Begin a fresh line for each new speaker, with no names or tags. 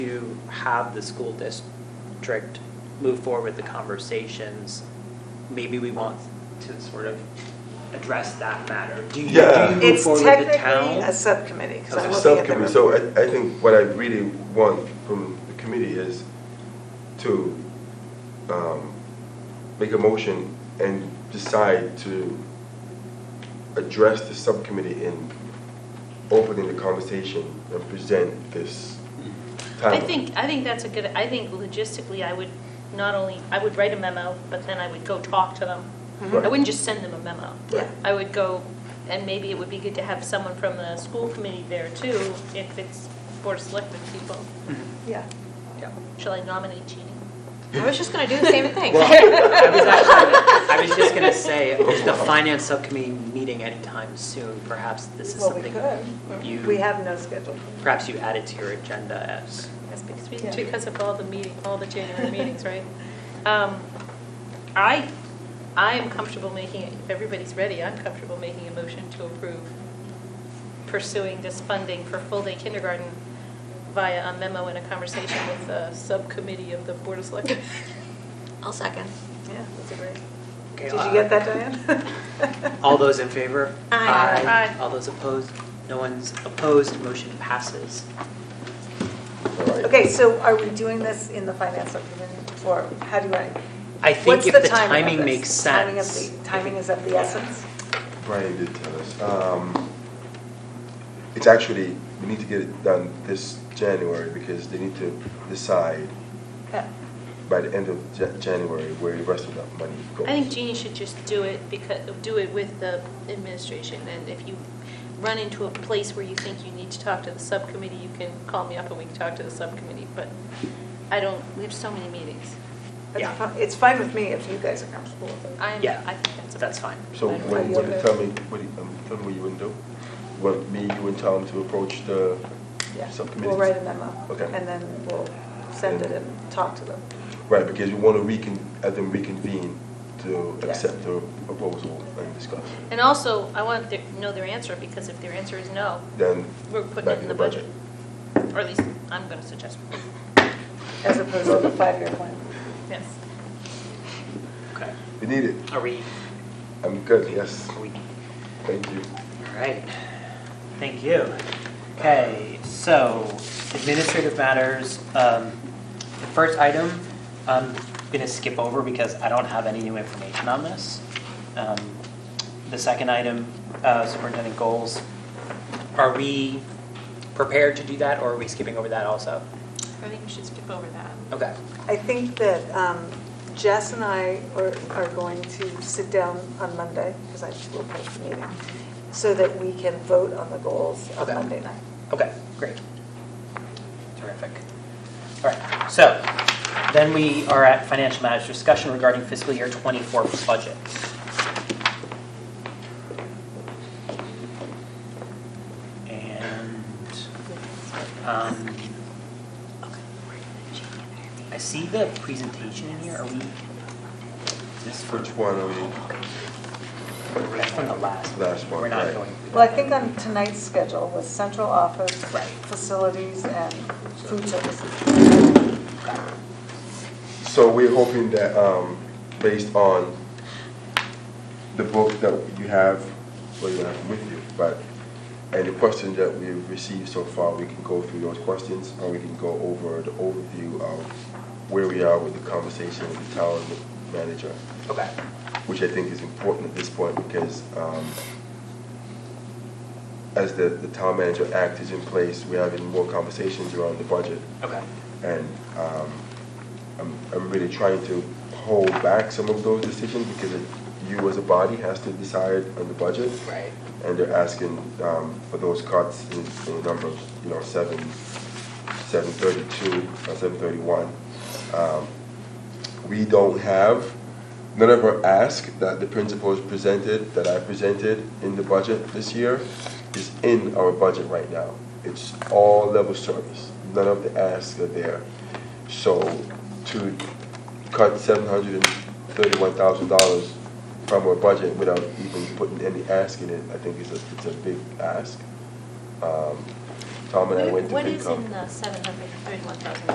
to have the school district move forward with the conversations, maybe we want to sort of address that matter. Do you, do
Yeah.
you move
It's
forward with the
technically a
town?
subcommittee, because I'm looking at the
Subcommittee, so
report.
I, I think what I really want from the committee is to um, make a motion and decide to address the subcommittee in opening the conversation and present this
I
timeline.
think, I think that's a good, I think logistically, I would not only, I would write a memo, but then I would go talk to them.
Right.
I wouldn't just send them a memo.
Yeah.
I would go, and maybe it would be good to have someone from the school committee there too, if it's Board of Selectmen people.
Yeah.
Yeah.
Shall I nominate Jeannie?
I was just gonna do the same thing.
I was actually, I was just gonna say, is the finance subcommittee meeting anytime soon? Perhaps this is
Well, we
something
could. We
you,
have no schedule.
perhaps you added to your agenda as.
That's because, we-
Yeah.
because of all the meeting, all the January meetings, right? Um, I, I am comfortable making, if everybody's ready, I'm comfortable making a motion to approve pursuing this funding for full-day kindergarten via a memo and a conversation with the subcommittee of the Board of Selectmen.
I'll second.
Yeah, that's a great.
Okay,
Did you
uh,
get that, Diane?
All those in favor?
Aye.
Aye.
All those opposed? No one's opposed, motion passes.
All right.
Okay, so are we doing this in the finance subcommittee, or how do I?
I think
What's
if the
timing of
timing
this?
makes
Timing of
sense.
the- Timing is of the essence?
Brian did tell us. Um, It's actually, we need to get it done this January because they need to decide
Yeah.
by the end of Ja- January where the rest of that money goes.
I think Jeannie should just do it because, do it with the administration, and if you run into a place where you think you need to talk to the subcommittee, you can call me up and we can talk to the subcommittee, but I don't, we have so many meetings.
That's
Yeah.
fine. It's fine with me if you guys are comfortable with it.
I'm,
Yeah,
I think that's a.
That's fine.
So
I don't
what
know.
what you tell me, what you, um, tell me what you would do? What, me, you and Tom to approach the
Yeah.
subcommittee?
We'll write a memo.
Okay.
And then we'll send it and talk to them.
Right, because we want to recon, have them reconvene to
Yeah.
accept the proposal and discuss.
And also, I want to know their answer, because if their answer is no,
Then,
we're putting
Back
it
in
in
the
the budget. Or at least, I'm gonna suggest,
As opposed to the five-year plan.
yes.
Okay.
we need it.
Are we,
I'm good, yes,
are we
thank you.
All right, thank you. Okay, so administrative matters, um, the first item, I'm gonna skip over because I don't have any new information on this. Um, The second item, uh, superintendent goals, are we prepared to do that or are we skipping over that also?
I think we should skip over that.
Okay,
I think that um, Jess and I are, are going to sit down on Monday, because I will post the meeting, so that we can vote on the goals on
Okay.
Monday night.
okay, great. Terrific. All right, so then we are at financial matters discussion regarding fiscal year '24 budget. And um, I see the presentation in here. Are we, is this for
Which one are we,
that's from the last?
Last one,
We're not
right.
going. through
Well, I
that.
think on tonight's schedule was central office,
Right.
facilities, and food services.
so we're hoping that, um, based on the book that you have, well, you don't have it with you, but, and the questions that we've received so far, we can go through those questions, and we can go over the overview of where we are with the conversation with the town manager,
Okay,
which I think is important at this point, because, um, as the, the town manager act is in place, we're having more conversations around the budget,
okay,
and um, I'm, I'm really trying to hold back some of those decisions because it- you as a body has to decide on the budget.
right.
And they're asking um, for those cuts in, in the number of, you know, seven, seven thirty-two or seven thirty-one. Um, We don't have, none of our ask that the principals presented, that I presented in the budget this year is in our budget right now. It's all level service. None of the asks are there. So to cut seven hundred and thirty-one thousand dollars from our budget without even putting any ask in it, I think is a, it's a big ask. Um, Tom and I
Where-
went to
What is
FinCom.
in the seven hundred thirty-one thousand